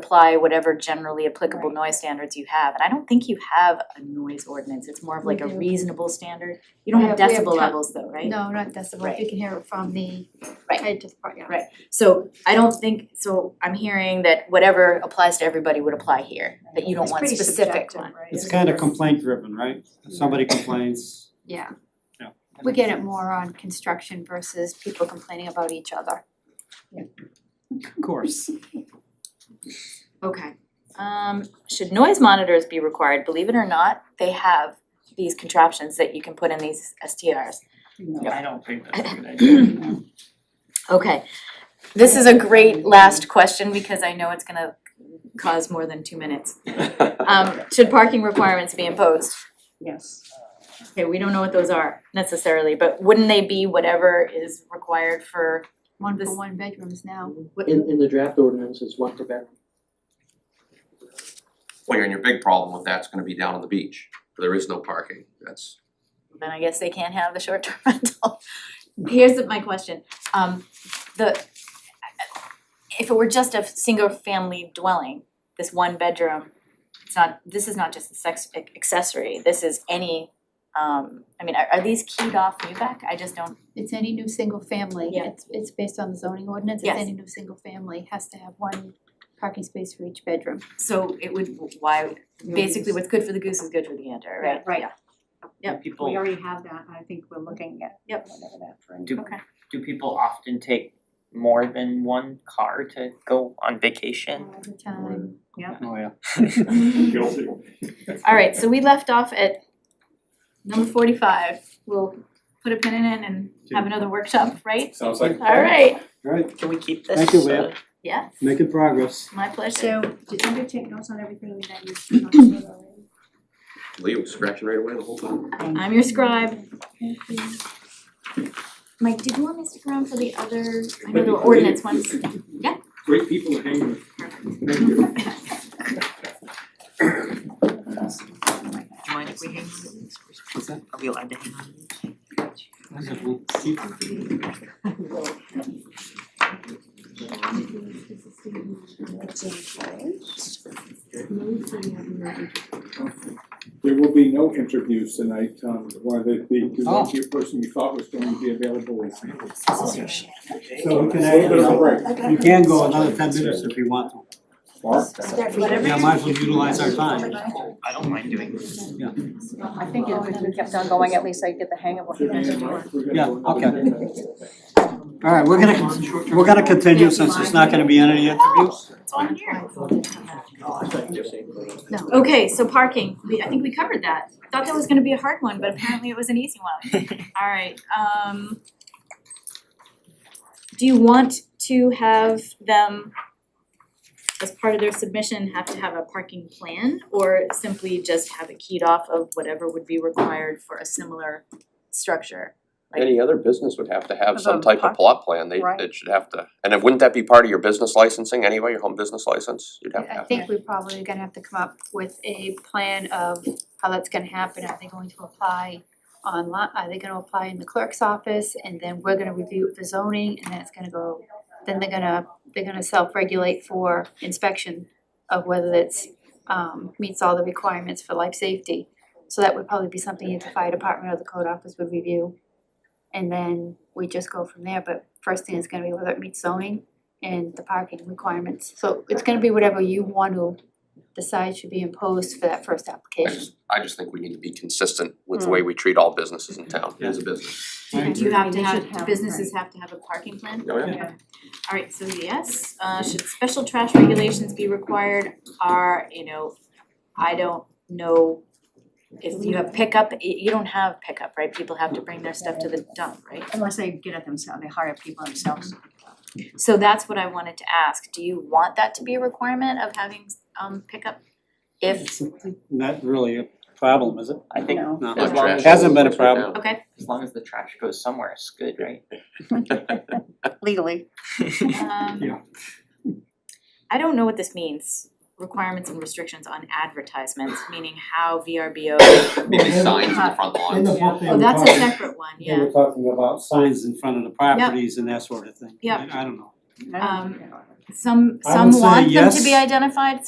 apply whatever generally applicable noise standards you have, and I don't think you have a noise ordinance, it's more of like a We do. reasonable standard. You don't We have have- we have decibel ton- levels though, right? No, not decibel, you can hear it from the Right. head to the front yard. Right. So I don't think, so I'm hearing that whatever applies to everybody would apply here, that you don't It's want pretty specific subjective, one. right? It's kind of complaint driven, right? If somebody complains, Yeah. Yeah. We get it more on construction versus people complaining about each other. of course. Okay. Um, should noise monitors be required? Believe it or not, they have these contraptions that you can put in these STRs. No, I don't think that's a good idea. Okay, this is a great last question because I know it's gonna cause more than two minutes. Um, should parking requirements be imposed? Yes. Okay, we don't know what those are necessarily, but wouldn't they be whatever is required for One This- for one bedrooms now. what In in the draft ordinance is one per bedroom. Well, and your big problem with that's gonna be down on the beach, there is no parking, that's. then I guess they can't have the short-term rental. Here's my question, um, the, if it were just a single-family dwelling, this one bedroom, it's not, this is not just a sex accessory, this is any, um, I mean, are, are these keyed off Newbeck? I just don't, It's any new single family, Yeah. it's it's based on the zoning ordinance, it's Yes. any new single family has to have one parking space for each bedroom. so it would, why, basically what's good for the goose is good for the gander, right? Right. Yeah. Yeah, Yep. People, We already have that, I think we're looking at Yep. whatever that for. do, Okay. do people often take more than one car to go on vacation? All the time. Oh, yeah. Guilty. Alright, so we left off at number forty-five, we'll put a pin in it and have another workshop, right? Sounds like. Alright, All right, Can we keep this? Thank you, Leah. uh, yeah, making progress. my pleasure. So, did you take notes on everything that you talked about already? Leo was scratching right away the whole time. I'm your scribe. Thank you. Mike, did you want me to stick around for the other, I know That'd the be ordinance great. ones, yeah. Great people to hang with. Thank you. Do you mind if we hang on to these? What's that? Are we allowed to hang on to these? There will be no interviews tonight, um, why the, the, the Oh. lucky person you thought was going to be available is. So we can A little bit of a add, break. you can go another ten minutes if you want to. Whatever Yeah, you- might as well utilize our time. I don't mind doing this. I think if we kept on going, at least I'd get the hang of what we Should were be in doing. mind, we're gonna Yeah, go another okay. ten minutes. All right, we're gonna, con- we're gonna continue since it's not gonna be any interviews. It's on here. Yes. Okay, so parking, we, I think we covered that. Thought that was gonna be a hard one, but apparently it was an easy one. Alright, um. Do you want to have them, as part of their submission, have to have a parking plan? Or simply just have it keyed off of whatever would be required for a similar structure? Any other business would have to have some Of a type park- of plot plan, they, right. it should have to, and then wouldn't that be part of your business licensing anyway, your home business license? You'd have to I I have. think we're probably gonna have to come up with a plan of how that's gonna happen, are they going to apply online, are they gonna apply in the clerk's office, and then we're gonna review the zoning, and then it's gonna go, then they're gonna, they're gonna self-regulate for inspection of whether it's um meets all the requirements for life safety. So that would probably be something that the fire department or the code office would review, and then we just go from there, but first thing is gonna be whether it meets zoning and the parking requirements. So it's gonna be whatever you want to decide should be imposed for that first I application. just, I just think we need to be consistent with the way we treat all businesses in town, it is a business. Do you have to They should have, have, businesses have to have a parking plan? Oh, yeah. Okay. Alright, so yes, uh should special trash regulations be required are, you know, I don't know if you have pickup, y- you don't have pickup, right? People have to bring their stuff to the dump, right? Unless they get it themselves, they hire people themselves. So that's what I wanted to ask, do you want that to be a requirement of having um pickup? If, It's Not really a problem, is it? I think No. No. as long as, Hasn't been a Trash right problem. now. okay, as long as the trash goes somewhere, it's good, right? Legally. um. Yeah. I don't know what this means, requirements and restrictions on advertisements, meaning how VRBO, Maybe signs in the front lawn. book, oh, that's a separate one, yeah. They were talking about signs in front of the properties and that sort of thing. Yep. I I don't know. Um, some I would some say want them to yes. be identified,